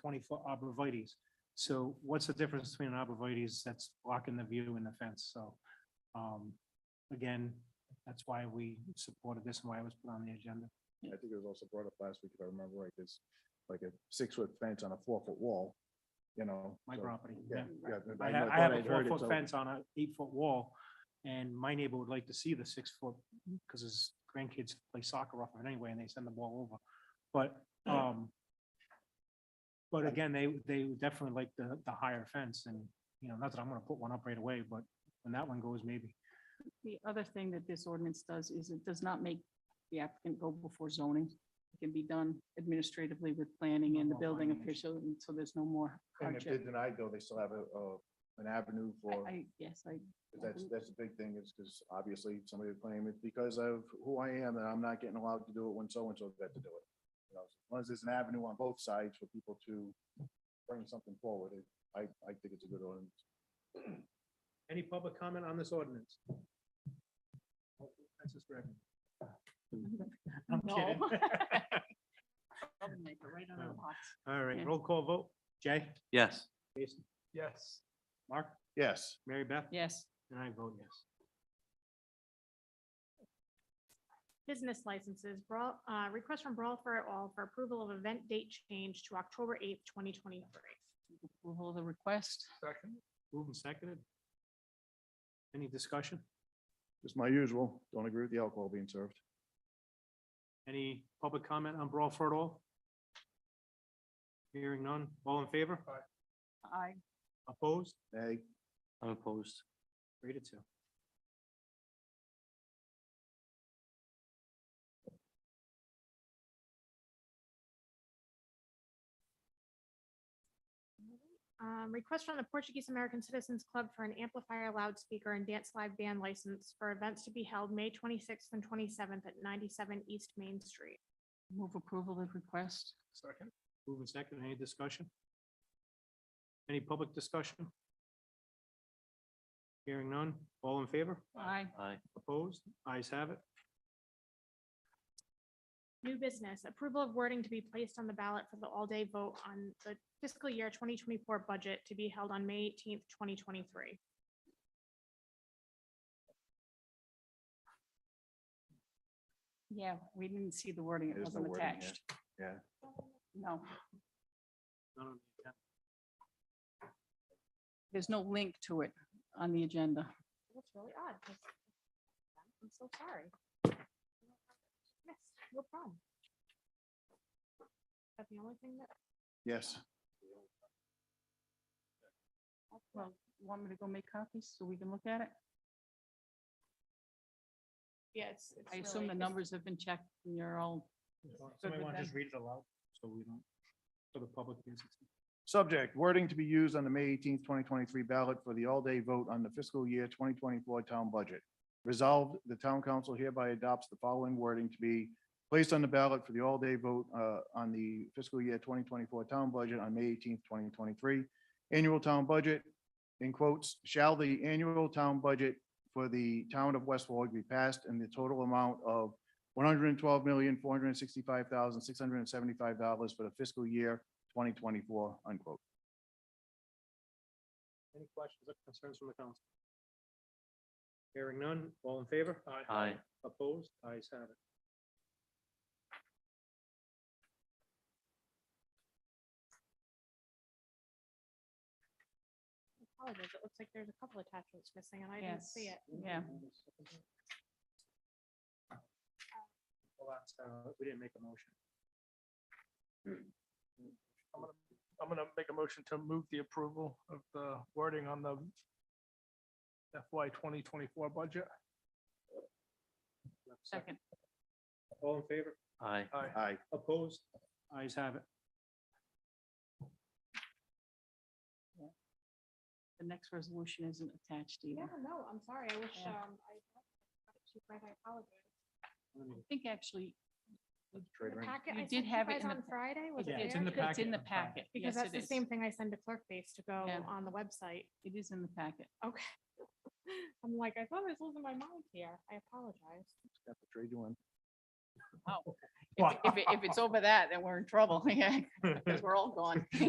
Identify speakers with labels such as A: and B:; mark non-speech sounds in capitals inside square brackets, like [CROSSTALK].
A: twenty-foot arborvitae's. So what's the difference between an arborvitae's that's blocking the view and the fence? So, um, again, that's why we supported this and why it was put on the agenda.
B: I think it was also brought up last week, if I remember right, it's like a six-foot fence on a four-foot wall, you know.
A: My
B: so-
A: property.
B: Yeah,
C: Mm-hmm.
B: yeah.
A: I have,
B: thought
A: I have a
B: I'd heard it,
A: four-foot
B: so-
A: fence on an eight-foot wall, and my neighbor would like to see the six-foot, because his grandkids play soccer off of it anyway, and they send the ball over. But, um, but again, they, they would definitely like the, the higher fence, and, you know, not that I'm gonna put one up right away, but when that one goes, maybe.
C: The other thing that this ordinance does is it does not make the applicant go before zoning. It can be done administratively with planning
A: No
C: and the
A: more
C: building
A: findings.
C: official, and so there's no more
B: And if they're
C: hardship.
B: denied though, they still have a, a- an avenue
C: I,
B: for,
C: I, yes, I,
B: that's, that's the big thing is because obviously somebody would claim it's because of who I am and I'm not getting allowed to do it when so-and-so got to do it. You know, As long as there's an avenue on both sides for people to bring something forward, it- I, I think it's a good ordinance.
A: Any public comment on this ordinance? Francis Reagan. I'm
C: No. [LAUGHS]
A: kidding.
C: right out of the box.
A: All
C: Yeah.
A: right, roll call vote. Jay?
D: Yes.
A: Jason? Yes. Mark?
B: Yes,
A: Mary Beth?
C: Yes,
A: And I vote yes.
E: Business licenses, Brawl, uh, request from Brawl for All for approval of event date change to October eighth, twenty twenty-three.
C: approval of the request.
A: Moved and seconded. Any discussion?
B: just my usual. Don't agree with the alcohol being served.
A: Any public comment on Brawl for It All? Hearing none. All in favor?
C: I,
A: Opposed?
B: Hey,
D: I'm opposed.
A: Three to two.
E: Um, request from the Portuguese American Citizens Club for an amplifier loudspeaker and dance live band license for events to be held May twenty-sixth and twenty-seventh at ninety-seven East Main Street.
C: move approval of the request.
A: Second. Moved and seconded. Any discussion? Any public discussion? Hearing none. All in favor?
C: I,
D: Aye.
A: Opposed? Ayes have it.
E: New business, approval of wording to be placed on the ballot for the all-day vote on the fiscal year twenty twenty-four budget to be held on May eighteenth, twenty twenty-three.
C: yeah, we didn't see the wording. It
B: There's no
C: wasn't
B: wording here.
C: attached.
B: yeah.
C: No,
A: None on the agenda.
C: there's no link to it on the agenda.
E: That's really odd. 'cause- I'm so sorry. Yes, no problem. Is that the only thing that?
B: Yes.
C: Well, want me to go make copies so we can look at it?
E: Yes.
C: I assume the numbers have been checked and you're all,
A: Somebody
C: with
A: want to
C: that.
A: just read it aloud? So we don't, so the public can see.
B: Subject, wording to be used on the May eighteenth, twenty twenty-three ballot for the all-day vote on the fiscal year twenty twenty-four town budget. Resolved, the town council hereby adopts the following wording to be placed on the ballot for the all-day vote uh, on the fiscal year twenty twenty-four town budget on May eighteenth, twenty twenty-three. Annual town budget, in quotes, shall the annual town budget for the town of West Warwick be passed in the total amount of one hundred and twelve million, four hundred and sixty-five thousand, six hundred and seventy-five dollars for the fiscal year twenty twenty-four, unquote.
A: Any questions or concerns from the council? Hearing none, all in favor?
D: Aye.
A: Opposed? Ayes have it.
E: Apologies, it looks like there's a couple attachments missing and I didn't
C: yes,
E: see it.
C: yeah.
A: Well, that's, uh, we didn't make a motion. I'm gonna, I'm gonna make a motion to move the approval of the wording on the FY twenty twenty-four budget.
C: Second,
A: All in favor?
D: Aye.
B: Aye.
A: Opposed? Ayes have it.
C: the next resolution isn't attached either.
E: Yeah, no, I'm sorry. I wish,
C: Yeah.
E: um, I, Chief Wright, I apologize.
C: I think actually,
E: The packet
C: You
E: I
C: did
E: sent you
C: have it
E: guys
C: in the
E: On
C: pa-
E: Friday, was it
A: Yeah,
E: there?
A: it's in the
C: it's
E: Because-
C: in the
A: packet.
C: packet. Yes,
E: Because that's
C: it
E: the
C: is.
E: same thing I send to clerk base to go
C: Yeah.
E: on the website. [LAUGHS]
C: It is in the packet.
E: Okay. I'm like, I thought I was losing my mind here. I apologize.
B: Got the trade one.
A: [LAUGHS]
C: [LAUGHS]
E: [LAUGHS]
C: If, it- if it- if it's over that, then we're in trouble, yeah, because we're all gone.